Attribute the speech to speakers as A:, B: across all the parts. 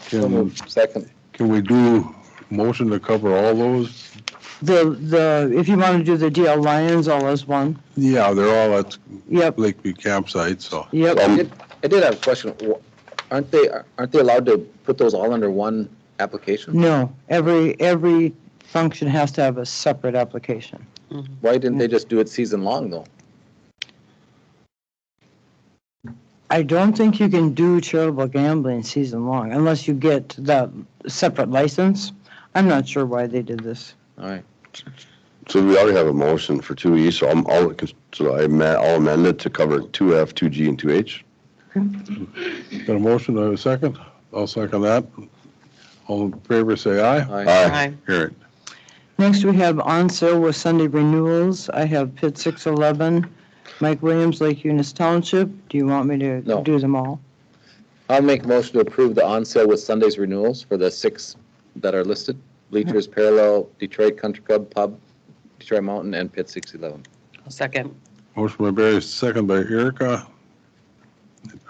A: So
B: Can,
A: moved. Second.
B: can we do motion to cover all those?
C: The, the, if you want to do the DL Lions all as one,
B: Yeah, they're all at
C: yep,
B: Lakeview campsite, so.
C: yep.
A: I did- I did have a question. Wh- Aren't they, aren't they allowed to put those all under one application?
C: No, every, every function has to have a separate application.
A: Why didn't they just do it season long though?
C: I don't think you can do charitable gambling season long unless you get that separate license. I'm not sure why they did this.
A: All right.
D: So we already have a motion for two E, so I'm, I'll, so I ma- I'll amend it to cover two F, two G, and two H.
B: Got a motion and a second? I'll second that. All in favor, say aye.
A: Aye.
D: Aye.
B: Carried.
C: Next, we have on sale with Sunday renewals. I have Pitt 611, Mike Williams, Lake Eunice Township. Do you want me to
A: No.
C: do them all?
A: I'll make motion to approve the on sale with Sundays renewals for the six that are listed. Bleachers
C: Mm.
A: Parallel, Detroit Country Club Pub, Detroit Mountain, and Pit 611.
E: Second.
B: Motion by Barry, second by Erica.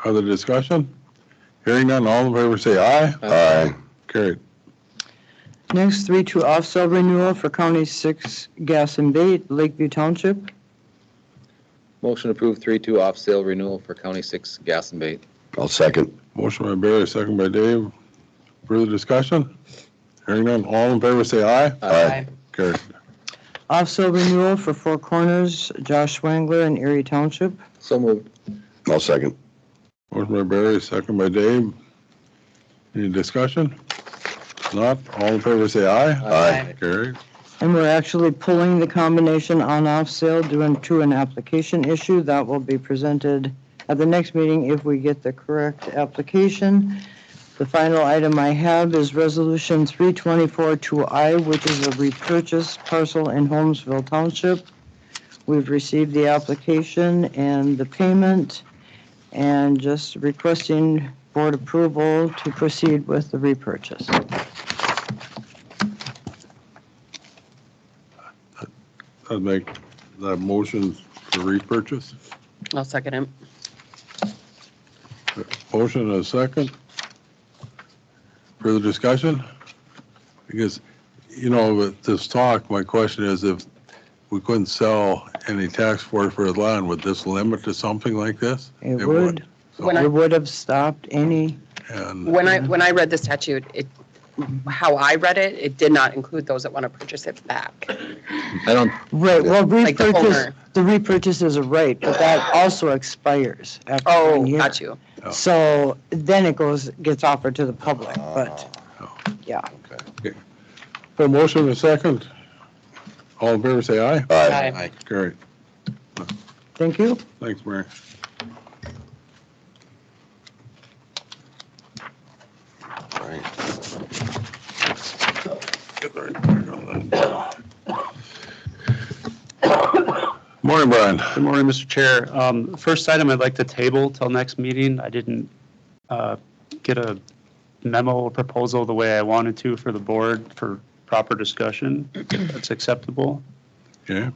B: Other discussion? Hearing none, all in favor, say aye.
D: Aye.
B: Carried.
C: Next, three to off-sale renewal for County 6 Gas and Bait, Lakeview Township.
A: Motion to approve 3-2 off sale renewal for County 6 Gas and Bait.
D: I'll second.
B: Motion by Barry, second by Dave. Further discussion? Hearing none, all in favor, say aye.
D: Aye.
B: Carried.
C: Off-sale renewal for Four Corners, Josh Wangler in Erie Township.
A: So moved.
D: I'll second.
B: Motion by Barry, second by Dave. Any discussion? Not, all in favor, say aye.
D: Aye.
B: Carried.
C: And we're actually pulling the combination on-off sale due to an application issue. That will be presented at the next meeting if we get the correct application. The final item I have is Resolution 324-2I, which is a repurchase parcel in Holmesville Township. We've received the application and the payment, and just requesting board approval to proceed with the repurchase.
B: I'd make that motion to repurchase.
E: I'll second him.
B: Motion and a second. Further discussion? Because, you know, with this talk, my question is if we couldn't sell any tax force for his land, would this limit to something like this?
C: It
B: It
C: would,
B: would.
E: When I-
C: it would have stopped any
B: And,
E: When I, when I read the statute, it, how I read it, it did not include those that want to purchase it back.
A: I don't,
C: Right, well,
E: Like the
C: repurchase,
E: owner.
C: the repurchase is a right, but that also expires after
E: Oh,
C: one year.
E: got you.
C: So then it goes, gets offered to the public, but, yeah.
B: so motion and a second. All in favor, say aye.
D: Aye.
B: Carried.
C: Thank you.
B: Thanks, Mary. Get the right back on that. Morning, Brian.
F: Good morning, Mr. Chair. Um, First item I'd like to table till next meeting. I didn't uh, get a memo or proposal the way I wanted to for the board for proper discussion. if That's acceptable.
B: Okay,
F: Um,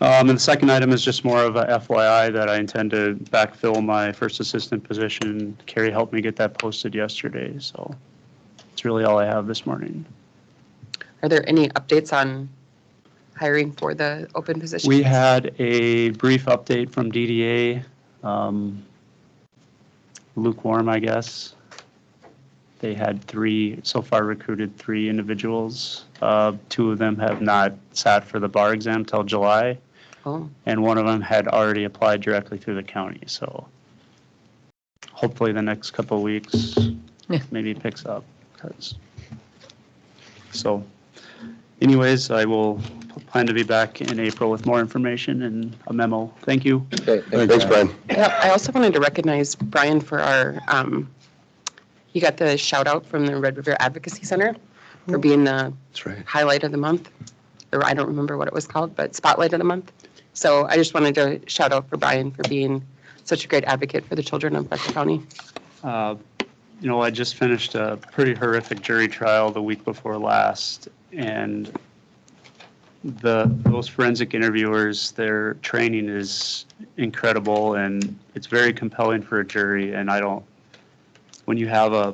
F: And the second item is just more of a FYI that I intend to backfill my first assistant position. Carrie helped me get that posted yesterday, so it's really all I have this morning.
E: Are there any updates on hiring for the open position?
F: We had a brief update from DDA, um, lukewarm, I guess. They had three, so far recruited three individuals. Uh, Two of them have not sat for the bar exam till July,
E: Oh,
F: and one of them had already applied directly through the county, so hopefully the next couple of weeks
E: Yeah.
F: maybe picks up, 'cause- so anyways, I will plan to be back in April with more information and a memo. Thank you.
A: okay, thank you.
D: Thanks, Brian.
E: yeah, I also wanted to recognize Brian for our, um, he got the shout out from the Red River Advocacy Center for being the
D: That's right.
E: highlight of the month, or I don't remember what it was called, but spotlight of the month. So I just wanted to shout out for Brian for being such a great advocate for the children of Fletcher County.
F: Uh, You know, I just finished a pretty horrific jury trial the week before last, and the, those forensic interviewers, their training is incredible, and it's very compelling for a jury, and I don't, when you have a